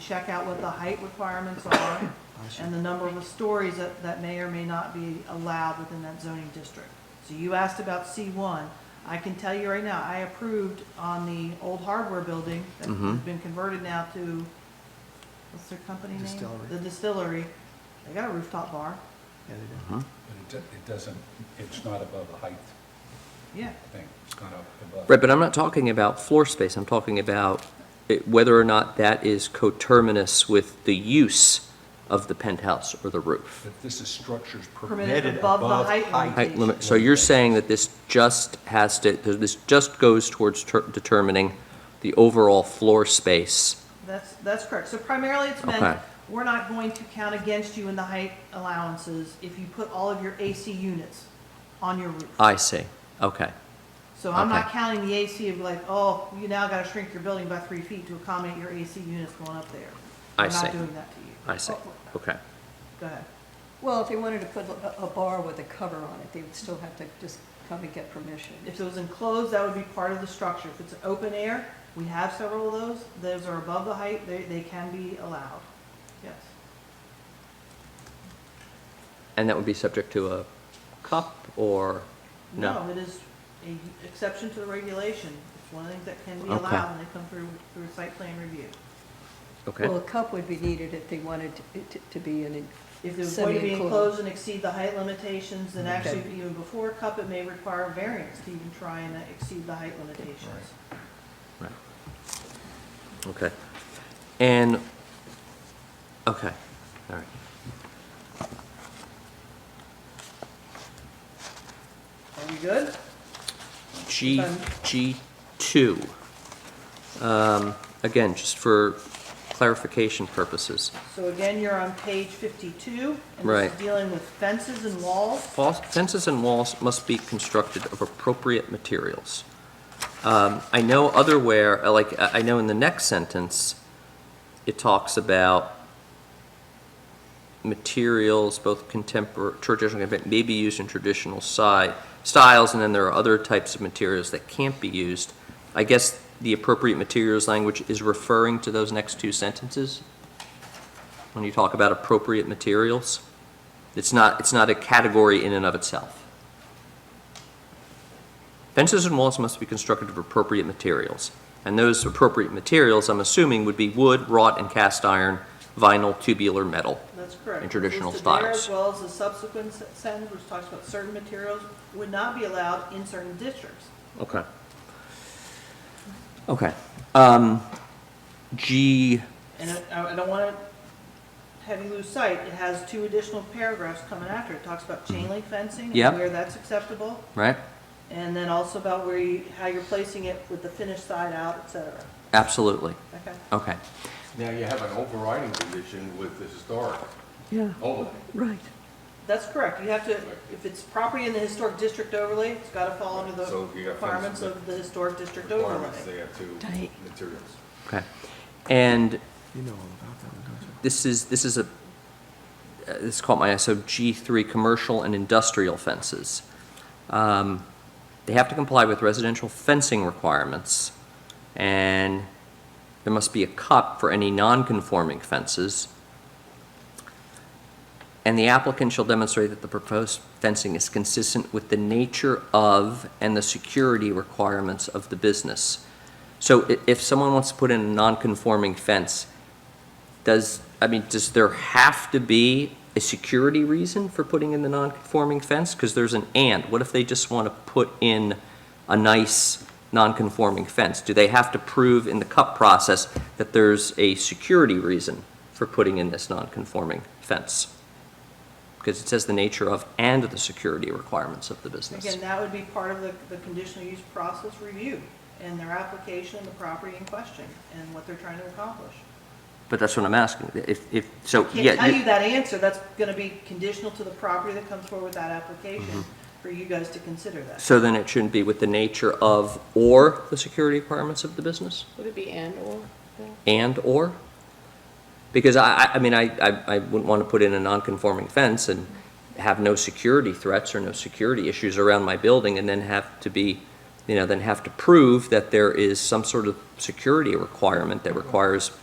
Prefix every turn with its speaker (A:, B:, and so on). A: check out what the height requirements are and the number of stories that, that may or may not be allowed within that zoning district. So you asked about C one. I can tell you right now, I approved on the old hardware building that has
B: Mhm.
A: been converted now to, what's their company name?
C: Distillery.
A: The distillery. They got a rooftop bar.
C: Yeah, they do.
D: But it, do- it doesn't, it's not above the height
A: Yeah.
D: thing, it's not up above.
B: Right, but I'm not talking about floor space, I'm talking about it- whether or not that is coterminous with the use of the penthouse or the roof.
D: But this is structures
A: Permitted
D: permitted
A: above the
D: above
A: height
D: height.
B: Height limit, so you're saying that this just has to, this just goes towards ter- determining the overall floor space?
A: That's, that's correct. So primarily it's meant,
B: Okay.
A: we're not going to count against you in the height allowances if you put all of your AC units on your roof.
B: I see, okay.
A: So I'm not
B: okay.
A: counting the AC of like, oh, you now gotta shrink your building by three feet to accommodate your AC units going up there.
B: I
A: We're
B: see.
A: not doing that to you. Oh,
B: I see, okay.
A: Go ahead.
E: Well, if they wanted to put a, a bar with a cover on it, they would still have to just come and get permission.
A: If it was enclosed, that would be part of the structure. If it's open air, we have several of those, those are above the height, they, they can be allowed. Yes.
B: And that would be subject to a cup or, no?
A: No, it is a exception to the regulation. It's one of the things that can be
B: Okay.
A: allowed when they come through, through site plan review.
B: Okay,
E: Well, a cup would be needed if they wanted to- it to, to be in
A: If
E: a
A: it's going to be
E: semi-enclosed.
A: enclosed and exceed the height limitations, then actually
E: Okay.
A: even before a cup, it may require variance to even try and exceed the height limitations.
B: right. Okay. And, okay, all right.
A: Are we good?
B: G,
A: Done.
B: G2. Um, Again, just for clarification purposes.
A: So again, you're on page fifty-two. And
B: Right.
A: this is dealing with fences and walls.
B: Fal- Fences and walls must be constructed of appropriate materials. Um, I know other where, uh, like, I I know in the next sentence, it talks about materials, both contemporary, traditional, but may be used in traditional si- styles, and then there are other types of materials that can't be used. I guess the appropriate materials language is referring to those next two sentences? When you talk about appropriate materials? It's not, it's not a category in and of itself. Fences and walls must be constructed of appropriate materials, and those appropriate materials, I'm assuming, would be wood, wrought and cast iron, vinyl, tubular, metal.
A: That's correct.
B: in traditional
A: Listed there, As
B: styles.
A: well as the subsequent se- sentence, which talks about certain materials would not be allowed in certain districts.
B: Okay. Okay. Um, G,
A: And I, I don't want to have you lose sight, it has two additional paragraphs coming after. It talks about chain link fencing
B: Yep.
A: and where that's acceptable,
B: right?
A: and then also about where you, how you're placing it with the finished side out, et cetera.
B: Absolutely.
A: Okay?
B: Okay.
F: Now you have an overriding condition with the historic
E: Yeah,
F: overlay.
E: right.
A: That's correct. You have to, if it's property in the historic district overlay, it's got to fall under the
F: So you got
A: requirements
F: fences
A: of the historic district overlay.
F: Requirements, they have two
E: Tight.
F: materials.
B: Okay. And
C: You know all about that one, don't you?
B: this is, this is a, uh, this caught my eye, so G3, commercial and industrial fences. Um, They have to comply with residential fencing requirements, and there must be a cup for any non-conforming fences. And the applicant shall demonstrate that the proposed fencing is consistent with the nature of and the security requirements of the business. So i- if someone wants to put in a non-conforming fence, does, I mean, does there have to be a security reason for putting in the non-conforming fence? Because there's an and. What if they just want to put in a nice non-conforming fence? Do they have to prove in the cup process that there's a security reason for putting in this non-conforming fence? Because it says the nature of and the security requirements of the business.
A: Again, that would be part of the, the conditional use process review and their application of the property in question and what they're trying to accomplish.
B: But that's what I'm asking. If, if, so, yeah.
A: Can't tell you that answer, that's gonna be conditional to the property that comes forward with that application, for you guys to consider that.
B: So then it shouldn't be with the nature of or the security requirements of the business?
G: Would it be and/or?
B: and/or? Because I, I- I mean, I, I I wouldn't want to put in a non-conforming fence and have no security threats or no security issues around my building and then have to be, you know, then have to prove that there is some sort of security requirement that requires